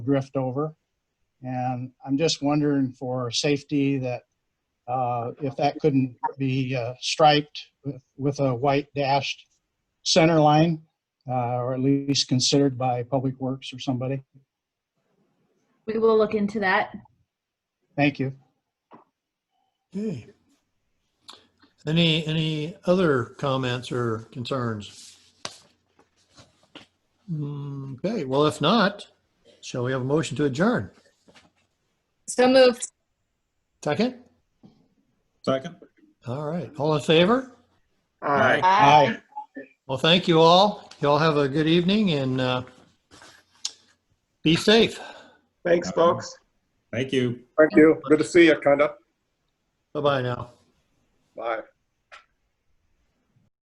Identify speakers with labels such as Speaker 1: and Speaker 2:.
Speaker 1: drift over. And I'm just wondering for safety that uh, if that couldn't be uh, striped with- with a white dashed center line, uh, or at least considered by Public Works or somebody.
Speaker 2: We will look into that.
Speaker 1: Thank you.
Speaker 3: Okay. Any, any other comments or concerns? Mm, Okay, well, if not, shall we have a motion to adjourn?
Speaker 4: So moved.
Speaker 3: Second?
Speaker 5: Second?
Speaker 3: All right, all in favor?
Speaker 5: All right.
Speaker 1: Aye.
Speaker 3: Well, thank you all. You all have a good evening and uh, be safe.
Speaker 6: Thanks, folks.
Speaker 5: Thank you.
Speaker 7: Thank you. Good to see you, kinda.
Speaker 3: Bye-bye now.
Speaker 7: Bye.